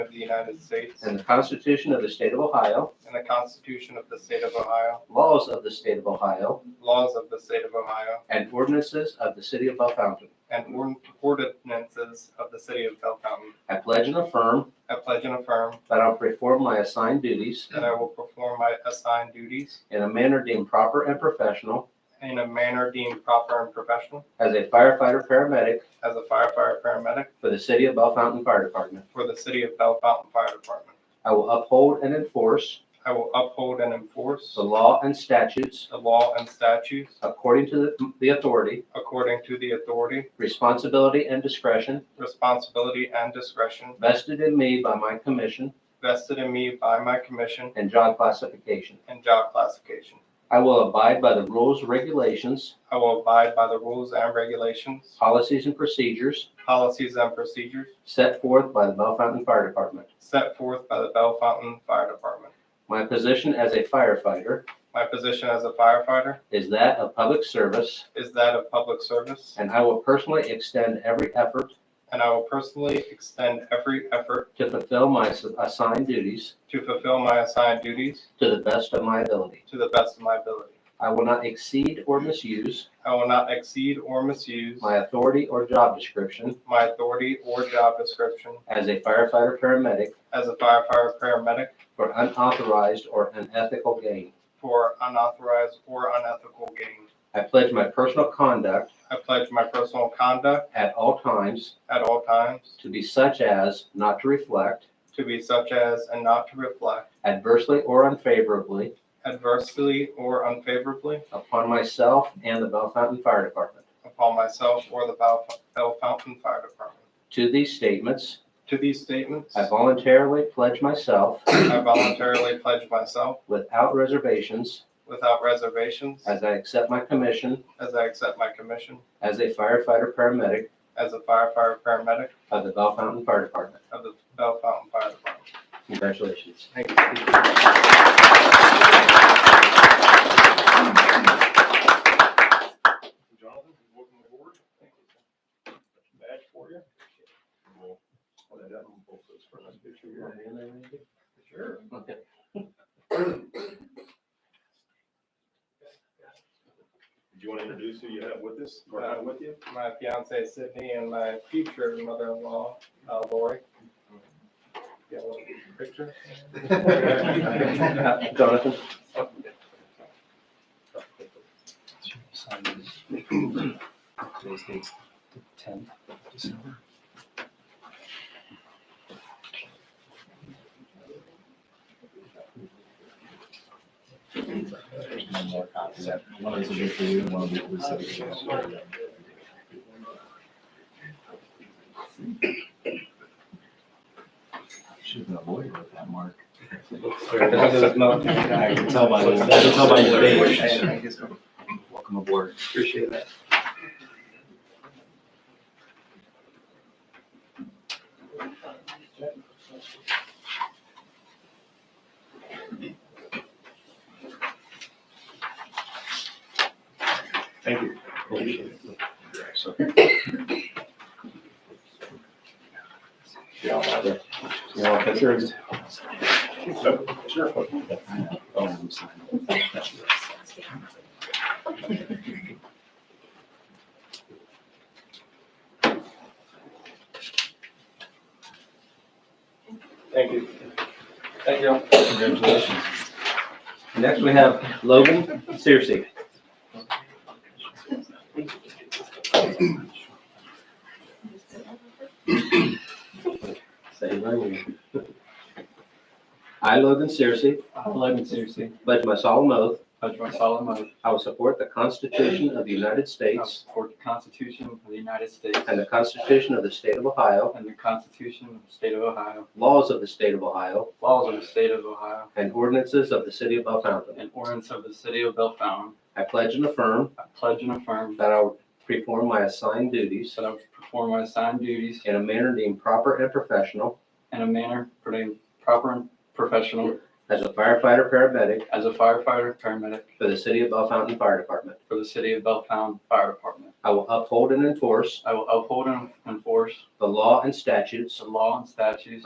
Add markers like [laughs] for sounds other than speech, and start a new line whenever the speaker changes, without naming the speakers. of the United States
and the Constitution of the State of Ohio,
and the Constitution of the State of Ohio,
laws of the State of Ohio,
laws of the State of Ohio,
and ordinances of the City of Bell Fountain.
and ord- ordinances of the City of Bell Fountain.
I pledge and affirm
I pledge and affirm
that I'll perform my assigned duties
that I will perform my assigned duties
in a manner deemed proper and professional
in a manner deemed proper and professional
as a firefighter paramedic
as a firefighter paramedic
for the City of Bell Fountain Fire Department.
for the City of Bell Fountain Fire Department.
I will uphold and enforce
I will uphold and enforce
the law and statutes
the law and statutes
according to the- the authority,
according to the authority,
responsibility, and discretion
responsibility, and discretion
vested in me by my commission
vested in me by my commission
and job classification.
and job classification.
I will abide by the rules, regulations,
I will abide by the rules and regulations,
policies, and procedures
policies, and procedures
set forth by the Bell Fountain Fire Department.
set forth by the Bell Fountain Fire Department.
My position as a firefighter
My position as a firefighter
is that of public service,
is that of public service,
and I will personally extend every effort
and I will personally extend every effort
to fulfill my ass- assigned duties
to fulfill my assigned duties
to the best of my ability.
to the best of my ability.
I will not exceed or misuse
I will not exceed or misuse
my authority or job description
my authority or job description
as a firefighter paramedic
as a firefighter paramedic
for unauthorized or unethical gain.
for unauthorized or unethical gain.
I pledge my personal conduct
I pledge my personal conduct
at all times
at all times
to be such as not to reflect
to be such as and not to reflect
adversely or unfavorably
adversely or unfavorably
upon myself and the Bell Fountain Fire Department.
upon myself or the Bell Bell Fountain Fire Department.
To these statements,
To these statements,
I voluntarily pledge myself
I voluntarily pledge myself
without reservations
without reservations
as I accept my commission
as I accept my commission
as a firefighter paramedic
as a firefighter paramedic
of the Bell Fountain Fire Department.
of the Bell Fountain Fire Department.
Congratulations.
Thank you.
Jonathan, welcome aboard. Badge for you. We'll- I'll let that one both those for a nice picture here. Sure. Did you want to introduce who you have with us, or have with you?
My fiance Sydney and my future mother-in-law uh, Lori. Get a little picture.
[laughs]
[laughs]
Uh, Jonathan?
Today's date's the tenth of December.
Should have been a lawyer with that mark. I can
Appreciate
tell by, I can tell by your face. Welcome aboard.
that.
Thank you.
You want a picture?
Sure.
Oh, I'm sorry.
Thank you. Thank you.
Congratulations.
Next, we have Logan Searcy. Say my name. I, Logan Searcy,
I, Logan Searcy,
pledge my solemn oath,
pledge my solemn oath
I will support the Constitution of the United
I
States
support the Constitution of the United States
and the Constitution of the State of Ohio,
and the Constitution of the State of Ohio,
laws of the State of Ohio,
laws of the State of Ohio,
and ordinances of the City of Belle Fountain.
and ordinance of the City of Belle Fountain.
I pledge and affirm
I pledge and affirm
that I will perform my assigned duties
that I will perform my assigned duties
in a manner deemed proper and professional
in a manner pertaining proper and professional
as a firefighter paramedic
as a firefighter, paramedic
for the City of Bell Fountain Fire Department.
for the City of Belle Fountain Fire Department.
I will uphold and enforce
I will uphold and enforce
the law and statutes
the law and statutes